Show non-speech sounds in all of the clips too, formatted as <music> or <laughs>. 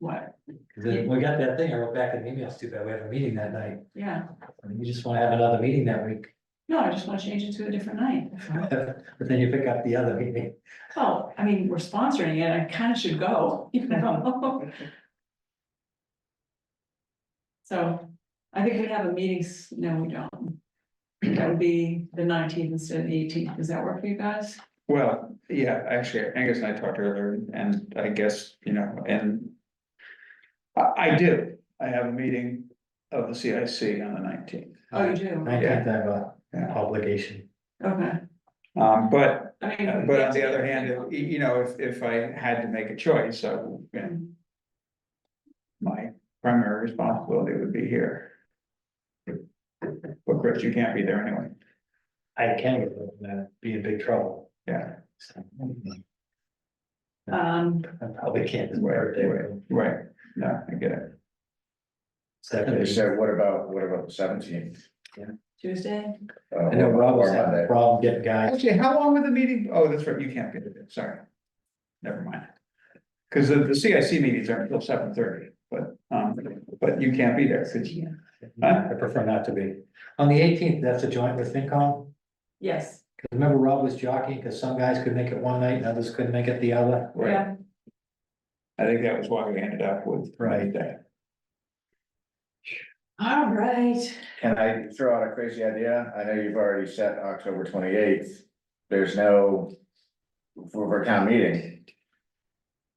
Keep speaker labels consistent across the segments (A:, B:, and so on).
A: What?
B: Cause then we got that thing, I wrote back in the email, it's too bad, we have a meeting that night,
A: Yeah,
B: I mean, you just wanna have another meeting that week. <laughs>
A: no, I just wanna change it to a different night.
B: But then you pick up the other meeting,
A: Oh, I mean, we're sponsoring it, I kinda should go, <laughs> you know? So, I think we have a meeting, s- no, we don't. That would be the nineteenth instead of the eighteenth, does that work for you guys?
C: Well, yeah, actually, Angus and I talked earlier, and I guess, you know, and. I, I do, I have a meeting of the CIC on the nineteenth,
A: Oh, you do,
B: nineteenth, I have a
C: Yeah.
B: obligation.
A: okay,
C: um, but,
A: I mean.
C: but on the other hand, if- you, you know, if, if I had to make a choice, I, would, you know, my primary responsibility would be here. But Chris, you can't be there anyway,
B: I can, get them, and I'd be in big trouble.
C: yeah,
B: So,
A: Um,
B: I probably can't. this
C: Right,
B: birthday,
C: right. right, no, I get it,
D: They
B: Saturday.
D: said, what about, what about the seventeenth? Uh,
A: Tuesday,
B: I know Rob was having a problem getting guys,
C: actually, how long would the meeting, oh, that's right, you can't be there, sorry. Never mind. Cause the, the CIC meetings aren't until seven thirty, but, um, but you can't be there, 'cause-
B: I prefer not to be. On the eighteenth, that's a joint with FinCom,
A: yes,
B: cause remember Rob was jockeying, cause some guys could make it one night and others couldn't make it the other.
C: right,
A: yeah,
C: I think that was why we ended up with.
B: Right.
C: that.
A: all right,
D: Can I throw out a crazy idea? I know you've already set October twenty-eighth. There's no. For for town meeting.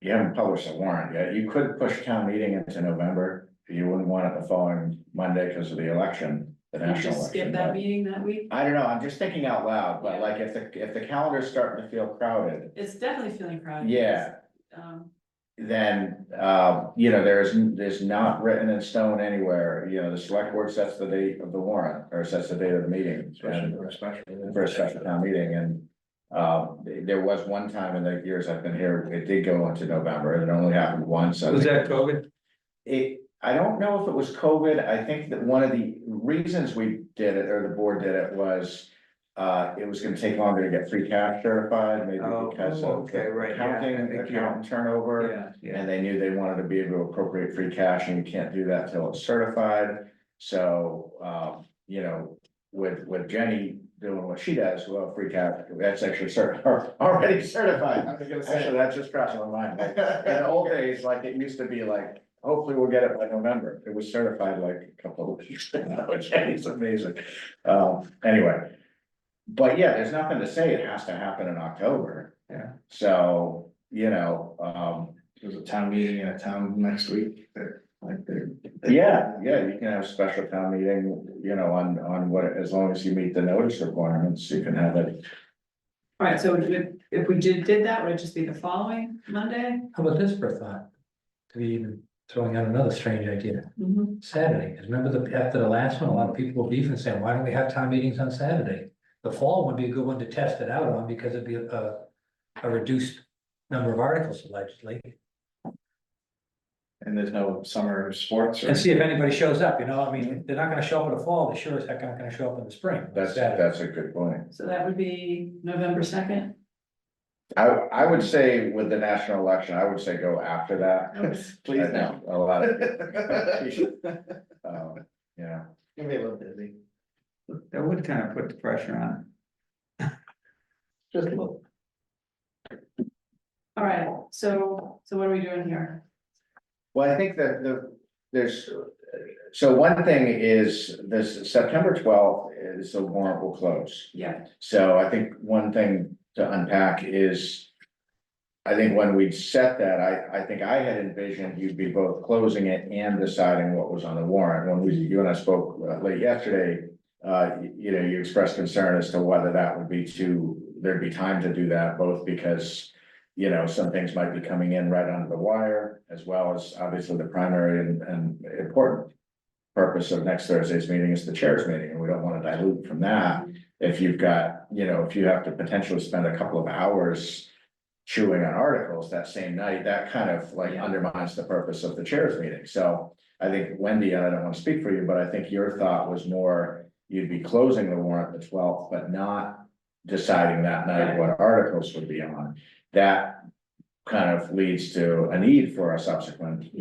D: You haven't published a warrant yet. You could push town meeting into November. You wouldn't want it the following Monday because of the election, the
A: you
D: national
A: just skip
D: election.
A: that
D: but-
A: meeting that week,
D: I don't know, I'm just thinking out loud, but like if the, if the calendar's starting to feel crowded,
A: it's definitely feeling crowded.
D: yeah.
A: Um,
D: then, uh, you know, there's, there's not written in stone anywhere, you know, the select board sets the date of the warrant, or sets the date of the meeting. and- For a special town meeting, and, um, th- there was one time in the years I've been here, it did go into November, and it only happened once. I
C: Was
D: think.
C: that COVID?
D: It, I don't know if it was COVID, I think that one of the reasons we did it, or the board did it, was. Uh, it was gonna take longer to get free cash certified, maybe
C: Oh,
D: because
C: oh,
D: of
C: okay, right, yeah,
D: the
C: I
D: accounting,
C: think, yeah.
D: accountant turnover.
C: Yeah.
D: And they knew they wanted to be able to appropriate free cash and you can't do that till it's certified. So, um, you know, with, with Jenny doing what she does, well, free cash, that's actually <laughs> cert, already certified. Actually, that just crossed my mind. Like, In old days, like it used to be like, hopefully we'll get it by November. It was certified like a couple of weeks ago. <laughs> Jenny's amazing. Um, anyway. But yeah, there's nothing to say. It has to happen in October.
C: Yeah.
D: So, you know, um,
E: There's a town meeting in a town next week, they're, like, they're.
D: Yeah, yeah, you can have a special town meeting, you know, on, on what, as long as you meet the notice requirements, you can have it.
A: all right, so if, if we did, did that, would it just be the following Monday?
B: How about this for a thought? To be even throwing out another strange idea,
A: Mhm.
B: Saturday, 'cause remember the, after the last one, a lot of people were beefing saying, why don't we have town meetings on Saturday? The fall would be a good one to test it out on because it'd be a- a, a reduced number of articles allegedly.
E: And there's no summer sports or.
B: And see if anybody shows up, you know, I mean, they're not gonna show up in the fall, they sure as heck aren't gonna show up in the spring. on
D: That's,
B: Saturday.
D: that's a good point.
A: So that would be November second.
D: I, I would say with the national election, I would say go after that.
E: Please
D: I
E: no.
D: know A lot <laughs> of,
E: Gonna
D: um, yeah,
E: be a little busy.
C: That would kind of put the pressure on.
E: Just a little.
A: All right, so, so what are we doing here?
D: well, I think that the, there's, so one thing is this September twelfth is the warrant will close.
A: Yeah,
D: So I think one thing to unpack is. I think when we set that, I, I think I had envisioned you'd be both closing it and deciding what was on the warrant. When we, you and I spoke uh, late yesterday. Uh, you, you know, you expressed concern as to whether that would be too, there'd be time to do that, both because. You know, some things might be coming in right under the wire, as well as obviously the primary and, and important. Purpose of next Thursday's meeting is the chair's meeting, and we don't want to dilute from that if you've got, you know, if you have to potentially spend a couple of hours chewing on articles that same night, that kind of like
A: Yeah.
D: undermines the purpose of the chairs meeting. So I think Wendy, and I don't want to speak for you, but I think your thought was more, you'd be closing the warrant the twelfth, but not deciding that night what articles would be on. That kind of leads to a need for a subsequent